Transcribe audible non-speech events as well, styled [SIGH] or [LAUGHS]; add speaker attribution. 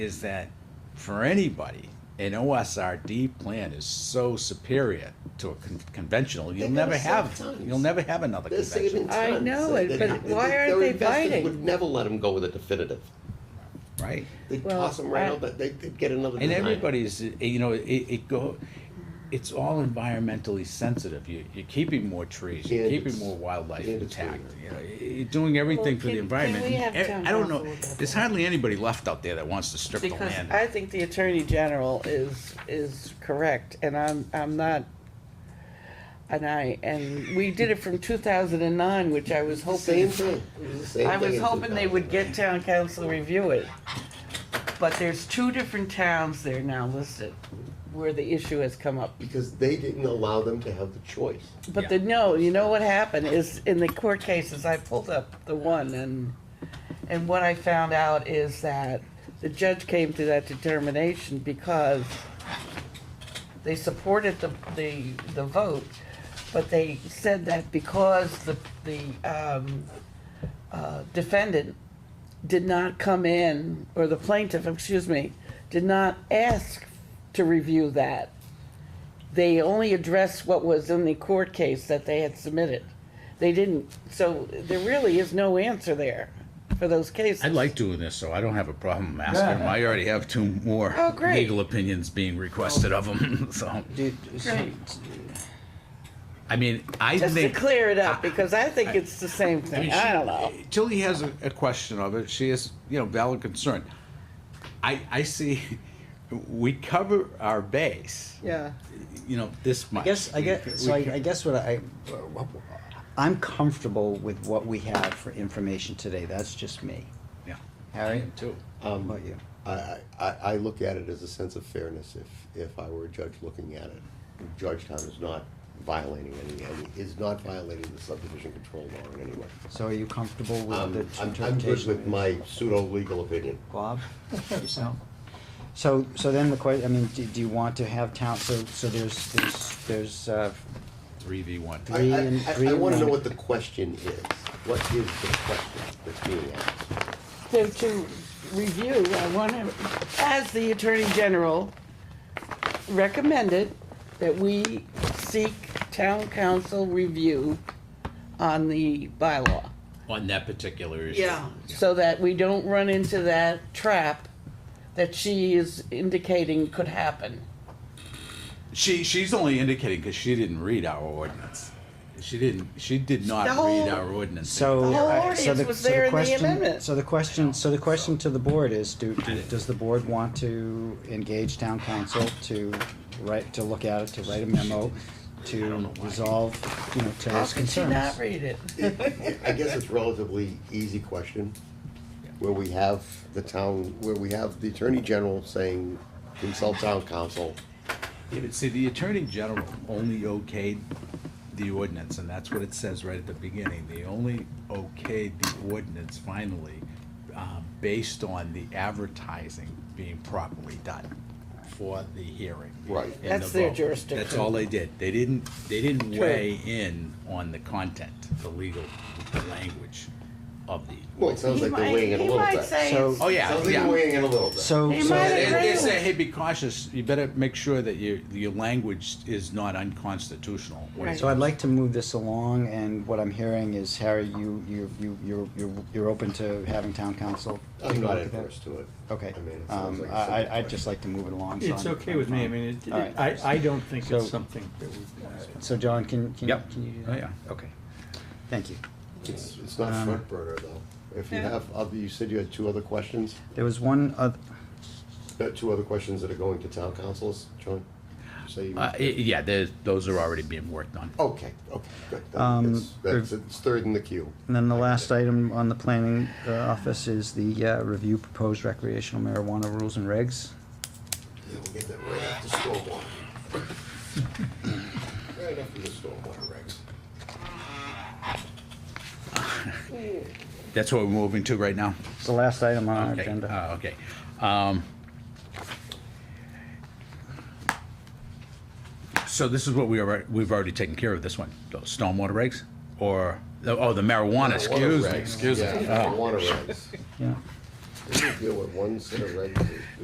Speaker 1: is that for anybody, an OSRD plan is so superior to a con- conventional, you'll
Speaker 2: They gotta
Speaker 1: never
Speaker 2: save
Speaker 1: have,
Speaker 2: tons.
Speaker 1: you'll never have another
Speaker 2: They're saving
Speaker 1: conventional,
Speaker 2: tons.
Speaker 3: I know it,
Speaker 2: They-
Speaker 3: but
Speaker 2: they-
Speaker 3: why
Speaker 2: their
Speaker 3: aren't they
Speaker 2: investors
Speaker 3: biting?
Speaker 2: Would never let them go with a definitive.
Speaker 1: right?
Speaker 2: They'd
Speaker 3: Well,
Speaker 2: toss them right
Speaker 3: I-
Speaker 2: out, but they- they'd get another
Speaker 1: And
Speaker 2: design.
Speaker 1: everybody's, eh, you know, it, it go, it's all environmentally sensitive. You, you're keeping more trees, you're
Speaker 2: And
Speaker 1: keeping
Speaker 2: it's-
Speaker 1: more wildlife
Speaker 2: and it's
Speaker 1: intact.
Speaker 2: greener.
Speaker 1: You know, you're doing everything for the
Speaker 3: Well, can- can
Speaker 1: environment.
Speaker 3: we have
Speaker 1: Eh,
Speaker 3: town
Speaker 1: I don't know,
Speaker 3: council look at
Speaker 1: there's
Speaker 3: that?
Speaker 1: hardly anybody left out there that wants to strip the
Speaker 3: Because
Speaker 1: land.
Speaker 3: I think the Attorney General is, is correct, and I'm, I'm not, and I, and we did it from two thousand and nine, which I was
Speaker 2: Same
Speaker 3: hoping,
Speaker 2: thing. It was the same
Speaker 3: I
Speaker 2: thing
Speaker 3: was
Speaker 2: in
Speaker 3: hoping they would get town council to review it. But there's two different towns there now listed where the issue has come up.
Speaker 2: 2000, Because they didn't allow them to have the choice.
Speaker 3: But the, no, you know what happened is, in the court cases, I pulled up the one, and, and what I found out is that the judge came to that determination because they supported the, the, the vote, but they said that because the, the, um, uh, defendant did not come in, or the plaintiff, excuse me, did not ask to review that, they only addressed what was in the court case that they had submitted. They didn't, so there really is no answer there for those cases.
Speaker 1: I like doing this, so I don't have a problem asking them. I already have two more
Speaker 3: Oh, great.
Speaker 1: legal opinions being requested of them, [LAUGHS] so.
Speaker 4: Did,
Speaker 3: Great.
Speaker 1: I mean, I
Speaker 3: Just to
Speaker 1: think,
Speaker 3: clear it up, because I think it's the same
Speaker 1: I mean,
Speaker 3: thing, I
Speaker 1: she-
Speaker 3: don't know.
Speaker 1: Tilly has a, a question of it. She has, you know, valid concern. I, I see, we cover our base,
Speaker 3: Yeah.
Speaker 1: you know, this much.
Speaker 4: I guess, I
Speaker 1: We-
Speaker 4: guess, so I,
Speaker 1: we-
Speaker 4: I guess what I, I'm comfortable with what we have for information today, that's just me.
Speaker 1: Yeah.
Speaker 4: Harry?
Speaker 1: Too.
Speaker 4: How
Speaker 2: Um,
Speaker 4: about you?
Speaker 2: I, I- I, I look at it as a sense of fairness if, if I were a judge looking at it. Georgetown is not violating any, any- is not violating the subdivision control law in any way.
Speaker 4: So are you comfortable with
Speaker 2: Um,
Speaker 4: the
Speaker 2: I'm, I'm good
Speaker 4: interpretation?
Speaker 2: with my pseudo-legal opinion.
Speaker 4: Bob, yourself? So, so then the question, I mean, do, do you want to have town, so, so there's, there's, there's, uh,
Speaker 1: Three V one.
Speaker 2: I- I-
Speaker 4: Three and-
Speaker 2: I-
Speaker 4: three
Speaker 2: I
Speaker 4: and
Speaker 2: wanna know
Speaker 4: one.
Speaker 2: what the question is. What is the question that's being asked?
Speaker 3: So to review, I want to, as the Attorney General recommended, that we seek town council review on the bylaw.
Speaker 1: On that particular issue.
Speaker 3: Yeah, so that we don't run into that trap that she is indicating could happen.
Speaker 1: She, she's only indicating because she didn't read our ordinance. She didn't, she did not
Speaker 3: The whole-
Speaker 1: read our ordinance.
Speaker 4: so.
Speaker 3: The whole
Speaker 4: uh, so
Speaker 3: audience
Speaker 4: the-
Speaker 3: was
Speaker 4: so the
Speaker 3: there in the
Speaker 4: question-
Speaker 3: amendment.
Speaker 4: So the question, so the question to the board is, do, do- does the board want to engage town council to write, to look at it, to write a memo, to resolve, you know,
Speaker 3: How
Speaker 4: Terry's
Speaker 3: could she not
Speaker 4: concerns?
Speaker 3: read it?
Speaker 2: I guess it's relatively easy question, where we have the town, where we have the attorney general saying consult town council.
Speaker 1: Yeah, but see, the Attorney General only okayed the ordinance, and that's what it says right at the beginning. They only okayed the ordinance finally, um, based on the advertising being properly done for the hearing.
Speaker 2: Right.
Speaker 1: and the
Speaker 3: That's their
Speaker 1: vote.
Speaker 3: jurisdiction.
Speaker 1: That's all they did. They didn't, they didn't
Speaker 3: True.
Speaker 1: weigh in on the content, the legal language of the.
Speaker 2: Well, it sounds
Speaker 3: He
Speaker 2: like
Speaker 3: might-
Speaker 2: they're weighing in a little
Speaker 3: He
Speaker 2: bit.
Speaker 3: might say,
Speaker 4: So-
Speaker 3: it's-
Speaker 1: Oh, yeah,
Speaker 2: Sounds like
Speaker 1: yeah.
Speaker 2: they're weighing in a little bit.
Speaker 4: So,
Speaker 3: They
Speaker 4: so-
Speaker 3: might
Speaker 1: They,
Speaker 3: have-
Speaker 1: they say, hey, be cautious, you better make sure that your, your language is not unconstitutional. when it's
Speaker 4: so I'd like to move this along, and what I'm hearing is, Harry, you, you, you, you're, you're, you're open to having town council? take
Speaker 2: I'm
Speaker 4: a
Speaker 2: not
Speaker 4: look at that?
Speaker 2: adverse to it.
Speaker 4: Okay,
Speaker 2: I mean, it sounds
Speaker 4: um,
Speaker 2: like a simple
Speaker 4: I, I- I'd
Speaker 2: question.
Speaker 4: just like to move it along. so
Speaker 5: It's
Speaker 4: I'm-
Speaker 5: okay
Speaker 4: I'm
Speaker 5: with me, I
Speaker 4: fine.
Speaker 5: mean, it-
Speaker 4: All right.
Speaker 5: it- I, I don't think
Speaker 4: So-
Speaker 5: it's something that would.
Speaker 4: So John, can, can,
Speaker 1: Yep.
Speaker 4: can you do
Speaker 1: Oh,
Speaker 4: that?
Speaker 1: yeah.
Speaker 4: Okay, thank you.
Speaker 2: It's, it's
Speaker 4: um,
Speaker 2: not front burner though. If you have, other- you said you had two other questions,
Speaker 4: There was one other,
Speaker 2: Uh, two other questions that are going to town councils, John? So you,
Speaker 1: Uh, y- yeah, there's, those are already being worked on.
Speaker 2: okay, okay, good. Then
Speaker 4: Um,
Speaker 2: it's- That's, it's third in the queue.
Speaker 4: and then the last item on the planning uh, office is the uh, review proposed recreational marijuana rules and regs.
Speaker 2: Yeah, we'll get that right after stormwater. Right after the stormwater regs.
Speaker 1: That's what we're moving to right now?
Speaker 4: It's the last item on our
Speaker 1: Okay,
Speaker 4: agenda.
Speaker 1: uh, Okay. Um, So this is what we already, we've already taken care of, this one, those stormwater regs? Or, oh, the marijuana, excuse me, excuse me.
Speaker 2: Yeah, water regs.
Speaker 4: Yeah.
Speaker 2: deal with one set of regulations.